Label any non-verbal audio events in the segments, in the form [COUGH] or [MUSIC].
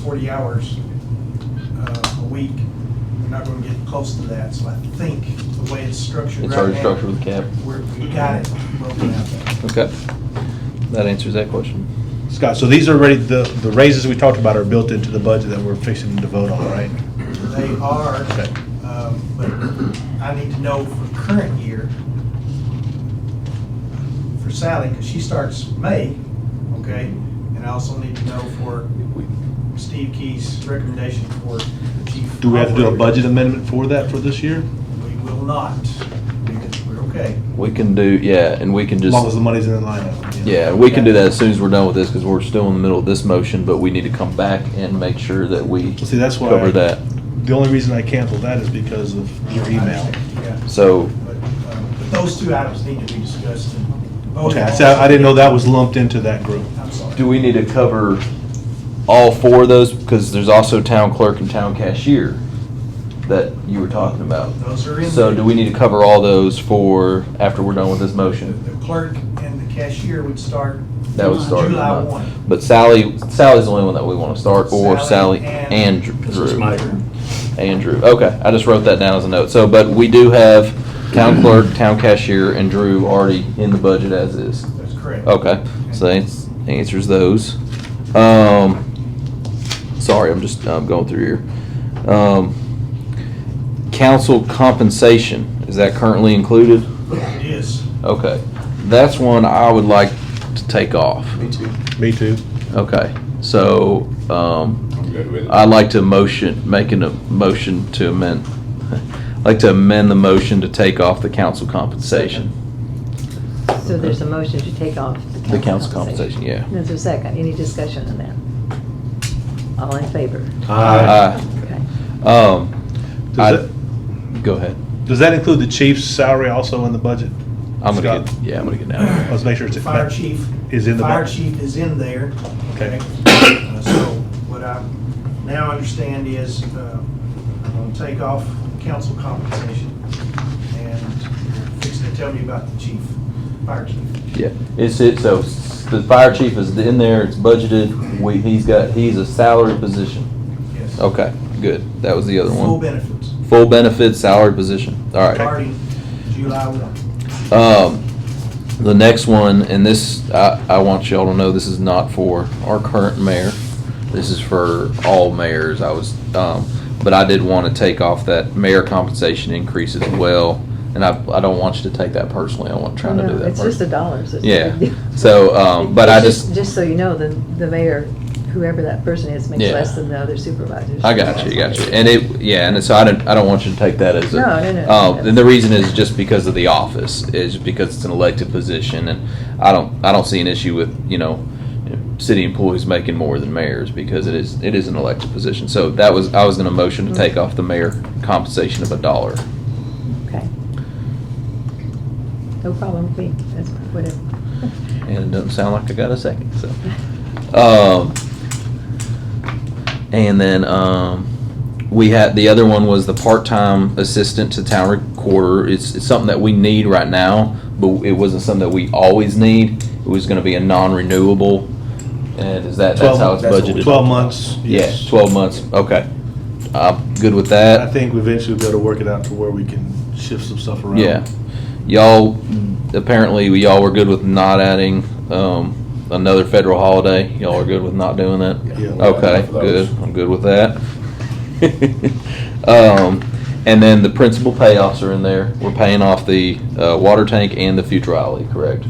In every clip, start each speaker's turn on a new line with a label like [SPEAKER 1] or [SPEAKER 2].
[SPEAKER 1] 40 hours uh, a week. We're not going to get close to that, so I think the way it's structured right
[SPEAKER 2] It's
[SPEAKER 1] now.
[SPEAKER 2] already structured with cap.
[SPEAKER 1] We're, we got it broken out there.
[SPEAKER 2] Okay. That answers that question.
[SPEAKER 3] Scott, so these are already, the, the raises we talked about are built into the budget that we're fixing to vote on, right?
[SPEAKER 1] They are,
[SPEAKER 3] Okay.
[SPEAKER 1] um, but I need to know for current year for Sally, because she starts May, okay? And I also need to know for Steve Key's recommendation for the chief.
[SPEAKER 3] Do we have to do a
[SPEAKER 1] operator.
[SPEAKER 3] budget amendment for that for this year?
[SPEAKER 1] We will not, because we're okay.
[SPEAKER 2] We can do, yeah, and we can
[SPEAKER 3] As
[SPEAKER 2] just,
[SPEAKER 3] long as the money's in the line item.
[SPEAKER 2] yeah, we can do that as soon as we're done with this, because we're still in the middle of this motion, but we need to come back and make sure that we
[SPEAKER 3] Well, See, that's why.
[SPEAKER 2] cover that.
[SPEAKER 3] The only reason I canceled that is because of your email.
[SPEAKER 1] Yeah,
[SPEAKER 2] So,
[SPEAKER 1] but, um, but those two items need to be discussed and voted
[SPEAKER 3] Okay,
[SPEAKER 1] on.
[SPEAKER 3] so I didn't know that was lumped into that group.
[SPEAKER 1] I'm sorry.
[SPEAKER 2] do we need to cover all four of those? Because there's also town clerk and town cashier that you were talking about.
[SPEAKER 1] Those are in.
[SPEAKER 2] So
[SPEAKER 1] there.
[SPEAKER 2] do we need to cover all those for, after we're done with this motion?
[SPEAKER 1] The clerk and the cashier would start.
[SPEAKER 2] That would start.
[SPEAKER 1] July one.
[SPEAKER 2] But Sally, Sally's the only one that we want to start, or
[SPEAKER 1] Sally
[SPEAKER 2] Sally
[SPEAKER 1] and-
[SPEAKER 2] and
[SPEAKER 4] This is
[SPEAKER 2] Drew.
[SPEAKER 4] my group.
[SPEAKER 2] Andrew. Okay, I just wrote that down as a note. So, but we do have town clerk, town cashier, and Drew already in the budget as is.
[SPEAKER 1] That's correct.
[SPEAKER 2] Okay, so that ans- answers those. Um, sorry, I'm just, I'm going through here. Um, council compensation, is that currently included?
[SPEAKER 1] It is.
[SPEAKER 2] Okay, that's one I would like to take off.
[SPEAKER 1] Me too.
[SPEAKER 3] Me too.
[SPEAKER 2] Okay, so, um,
[SPEAKER 5] I'm good with it.
[SPEAKER 2] I'd like to motion, making a motion to amend, [LAUGHS] I'd like to amend the motion to take off the council compensation.
[SPEAKER 6] So there's a motion to take off
[SPEAKER 2] The
[SPEAKER 6] the council compensation.
[SPEAKER 2] yeah.
[SPEAKER 6] There's a second. Any discussion on that? All in favor?
[SPEAKER 2] Aye.
[SPEAKER 6] Okay.
[SPEAKER 2] Um, I-
[SPEAKER 3] Does that,
[SPEAKER 2] go ahead.
[SPEAKER 3] does that include the chief's salary also in the budget?
[SPEAKER 2] I'm gonna
[SPEAKER 3] Scott?
[SPEAKER 2] get, yeah, I'm gonna get
[SPEAKER 3] [COUGHS]
[SPEAKER 2] down.
[SPEAKER 3] Let's make sure it's.
[SPEAKER 1] Uh, Fire chief.
[SPEAKER 3] Is in the
[SPEAKER 1] Fire
[SPEAKER 3] budget.
[SPEAKER 1] chief is in there.
[SPEAKER 3] Okay.
[SPEAKER 1] Uh, So what I now understand is uh, I'm going to take off council compensation and fix to tell me about the chief, fire chief.
[SPEAKER 2] Yeah, it's, it, so s- the fire chief is in there, it's budgeted, we, he's got, he's a salary position.
[SPEAKER 1] Yes.
[SPEAKER 2] Okay, good, that was the other
[SPEAKER 1] Full
[SPEAKER 2] one.
[SPEAKER 1] benefits.
[SPEAKER 2] Full benefit, salary position, all right.
[SPEAKER 1] Starting July 1.
[SPEAKER 2] Um, the next one, and this, I, I want y'all to know, this is not for our current mayor. This is for all mayors. I was, um, but I did want to take off that mayor compensation increase as well. And I, I don't want you to take that personally. I wasn't trying to
[SPEAKER 6] No,
[SPEAKER 2] do that.
[SPEAKER 6] It's just the
[SPEAKER 2] personally.
[SPEAKER 6] dollars. It's
[SPEAKER 2] Yeah.
[SPEAKER 6] the-
[SPEAKER 2] So, um, but I
[SPEAKER 6] It's
[SPEAKER 2] just-
[SPEAKER 6] Just so you know, the, the mayor, whoever that person is, makes
[SPEAKER 2] Yeah.
[SPEAKER 6] less than the other supervisors.
[SPEAKER 2] I got you, got you. And it, yeah, and so I don't, I don't want you to take that as a.
[SPEAKER 6] No, no, no,
[SPEAKER 2] Uh,
[SPEAKER 6] no.
[SPEAKER 2] and the reason is just because of the office, is because it's an elected position, and I don't, I don't see an issue with, you know, city employees making more than mayors, because it is, it is an elected position. So that was, I was gonna motion
[SPEAKER 6] Mm-hmm.
[SPEAKER 2] to take off the mayor compensation of a dollar.
[SPEAKER 6] Okay. No problem with me. That's whatever.
[SPEAKER 2] And it doesn't sound like I got a second, so. Um, and then, um, we had, the other one was the part-time assistant to town recorder. It's, it's something that we need right now, but it wasn't something that we always need. It was gonna be a non-renewable, and is that, that's how it's budgeted?
[SPEAKER 3] Twelve months.
[SPEAKER 2] Yeah,
[SPEAKER 3] yes.
[SPEAKER 2] twelve months, okay. I'm good with that.
[SPEAKER 3] I think we eventually be able to work it out to where we can shift some stuff around.
[SPEAKER 2] Yeah. Y'all, apparently, y'all were good with not adding um, another federal holiday. Y'all are good with not doing that?
[SPEAKER 3] Yeah.
[SPEAKER 2] Okay,
[SPEAKER 5] Enough of those.
[SPEAKER 2] good. I'm good with that. [LAUGHS] Um, And then the principal payoffs are in there. We're paying off the uh, water tank and the futurale, correct?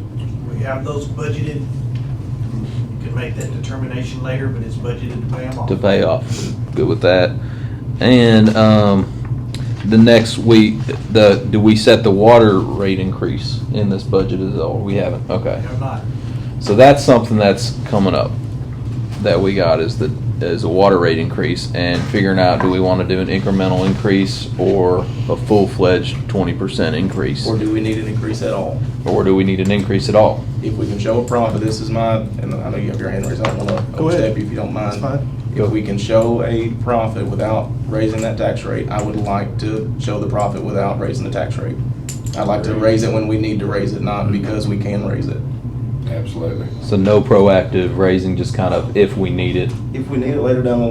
[SPEAKER 1] We have those budgeted. You can make that determination later, but it's budgeted to pay them off.
[SPEAKER 2] To pay off. Good with that. And um, the next week, the, do we set the water rate increase in this budget as well? We haven't, okay.
[SPEAKER 1] They're not.
[SPEAKER 2] So that's something that's coming up that we got is the is a water rate increase and figuring out do we want to do an incremental increase or a full fledged twenty percent increase
[SPEAKER 4] Or do we need an increase at all?
[SPEAKER 2] or do we need an increase at all?
[SPEAKER 4] If we can show a profit, this is my, and I know you have your hand raised, I don't wanna
[SPEAKER 3] Go ahead.
[SPEAKER 4] overstep you if you don't mind.
[SPEAKER 3] That's fine.
[SPEAKER 4] If we can show a profit without raising that tax rate, I would like to show the profit without raising the tax rate. I'd like to raise it when we need to raise it, not because we can raise it.
[SPEAKER 5] Absolutely.
[SPEAKER 2] So no proactive raising, just kind of if we need it,
[SPEAKER 4] If we need it later down the